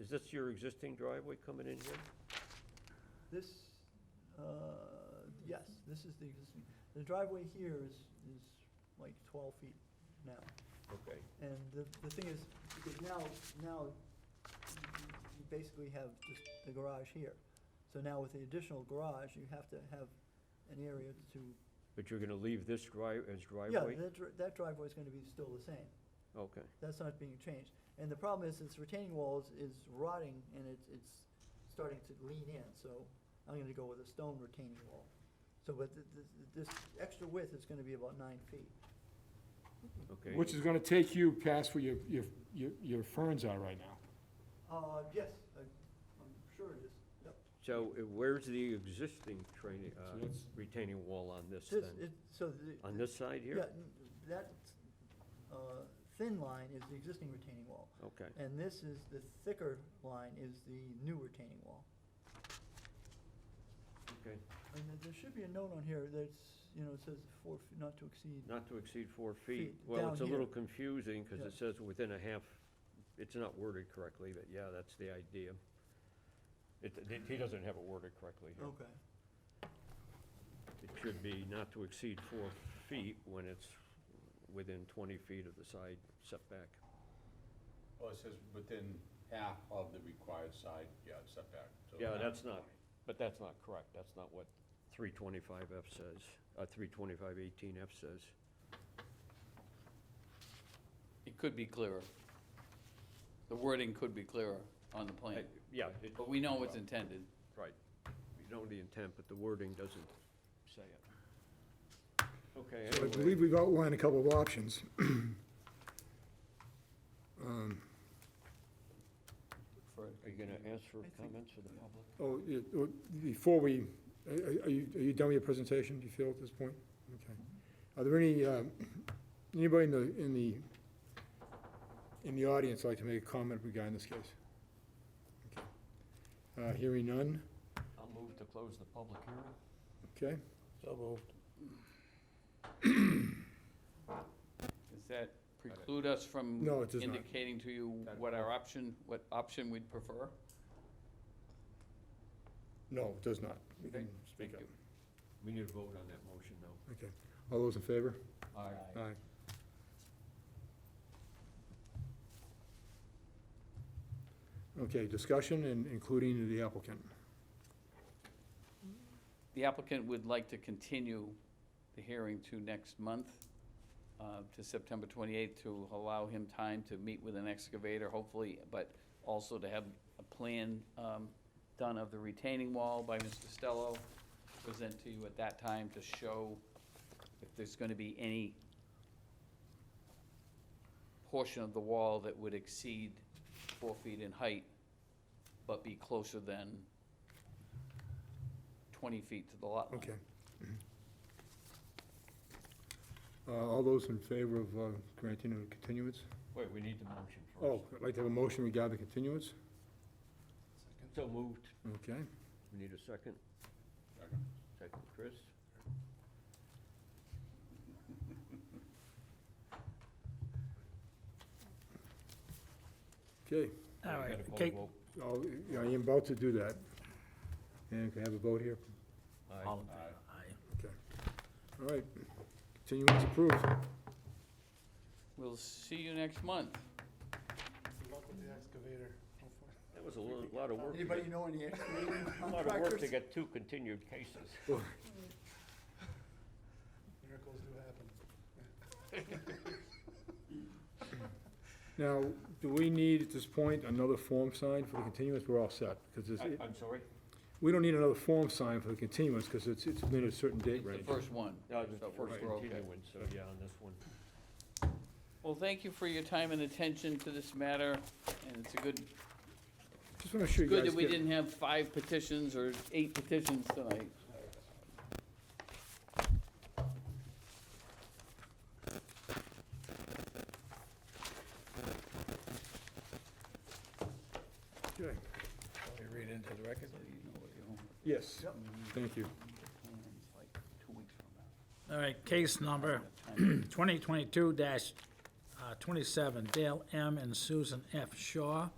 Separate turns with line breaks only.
Is this your existing driveway coming in here?
This, uh, yes, this is the existing, the driveway here is, is like twelve feet now.
Okay,
And the, the thing is, because now, now you- you basically have just the garage here. So now with the additional garage, you have to have an area to,
but you're gonna leave this drive, as
yeah,
driveway?
that, dri- that driveway's gonna be still the same.
Okay,
That's not being changed. And the problem is, this retaining wall is, is rotting and it's, it's starting to lean in, so I'm gonna go with a stone retaining wall. So, but th- th- this extra width is gonna be about nine feet.
okay.
Which is gonna take you past where your, your, your, your ferns are right now.
Uh, yes, I- I'm sure it is, yep.
So uh, where's the existing training, uh,
So that's-
retaining wall on this
This,
then?
it, so the.
On this side
Yeah,
here?
n- that, uh, thin line is the existing retaining wall.
Okay,
And this is, the thicker line is the new retaining wall.
okay.
And there- there should be a note on here that's, you know, it says four, f- not to exceed.
Not to exceed four feet.
Feet,
Well,
down
it's a
here.
little confusing, cause
Yeah.
it says within a half, it's not worded correctly, but yeah, that's the idea. It, it- he doesn't have it worded correctly here.
Okay.
It should be not to exceed four feet when it's within twenty feet of the side setback.
Well, it says within half of the required side yard setback. so
Yeah,
not
that's not,
20.
but that's not correct. That's not what three twenty-five F says, uh, three twenty-five eighteen F says.
It could be clearer. The wording could be clearer on the plan,
I- Uh, Yeah, it,
but we know what's intended.
right. We know the intent, but the wording doesn't say it. Okay,
So I
anyway,
believe we've outlined a couple of options. Um,
are you gonna ask for comments for the public?
Oh, yeah, oh, before we, are- are are you, are you done with your presentation, do you feel at this point? Okay. Are there any, um, anybody in the, in the, in the audience like to make a comment regarding this case? Okay. Uh, Hearing none,
I'll move to close the public hearing.
okay?
Does that preclude us from
No, it does not.
indicating to you what our option, what option we'd prefer?
No, it does not. We can
Thank
speak up.
you.
We need to vote on that motion though.
Okay. All those in favor?
Aye.
Aye. Okay, discussion and including the applicant.
The applicant would like to continue the hearing to next month, uh, to September 28th, to allow him time to meet with an excavator, hopefully, but also to have a plan um, done of the retaining wall by Mr. Stello, present to you at that time to show if there's going to be any portion of the wall that would exceed four feet in height, but be closer than 20 feet to the lot line.
Okay. Uh, All those in favor of uh, granting a continuance?
Wait, we need the motion
Oh,
first.
I'd like to have a motion regarding continuance.
So moved.
Okay.
We need a second.
Second.
Second, Chris.
Okay.
All right, okay.
I'll- I am about to do that. And can I have a vote here?
Aye.
Okay. All right. Continuance approved.
We'll see you next month.
That was a lo- lot of work. to
Anybody
get-
know any excavating
A lot of work to
contractors?
get two continued cases.
Miracles do happen.
Now, do we need at this point another form signed for the continuance? We're all set, because
I- I'm sorry?
we don't need another form signed for the continuance, because it's, it's been a certain date
The
range.
first one.
No, it's the
So
first
we're okay.
continuance, so yeah, on this one.
Well, thank you for your time and attention to this matter, and it's a good,
Just want to show you guys.
good that we
get-
didn't have five petitions or eight petitions tonight.
Okay.
read into the record?
So you know what your homework
Yes, thank you.
plans like two weeks from now.
All right, case number uh, 2022-27, Dale M. and Susan F. Shaw,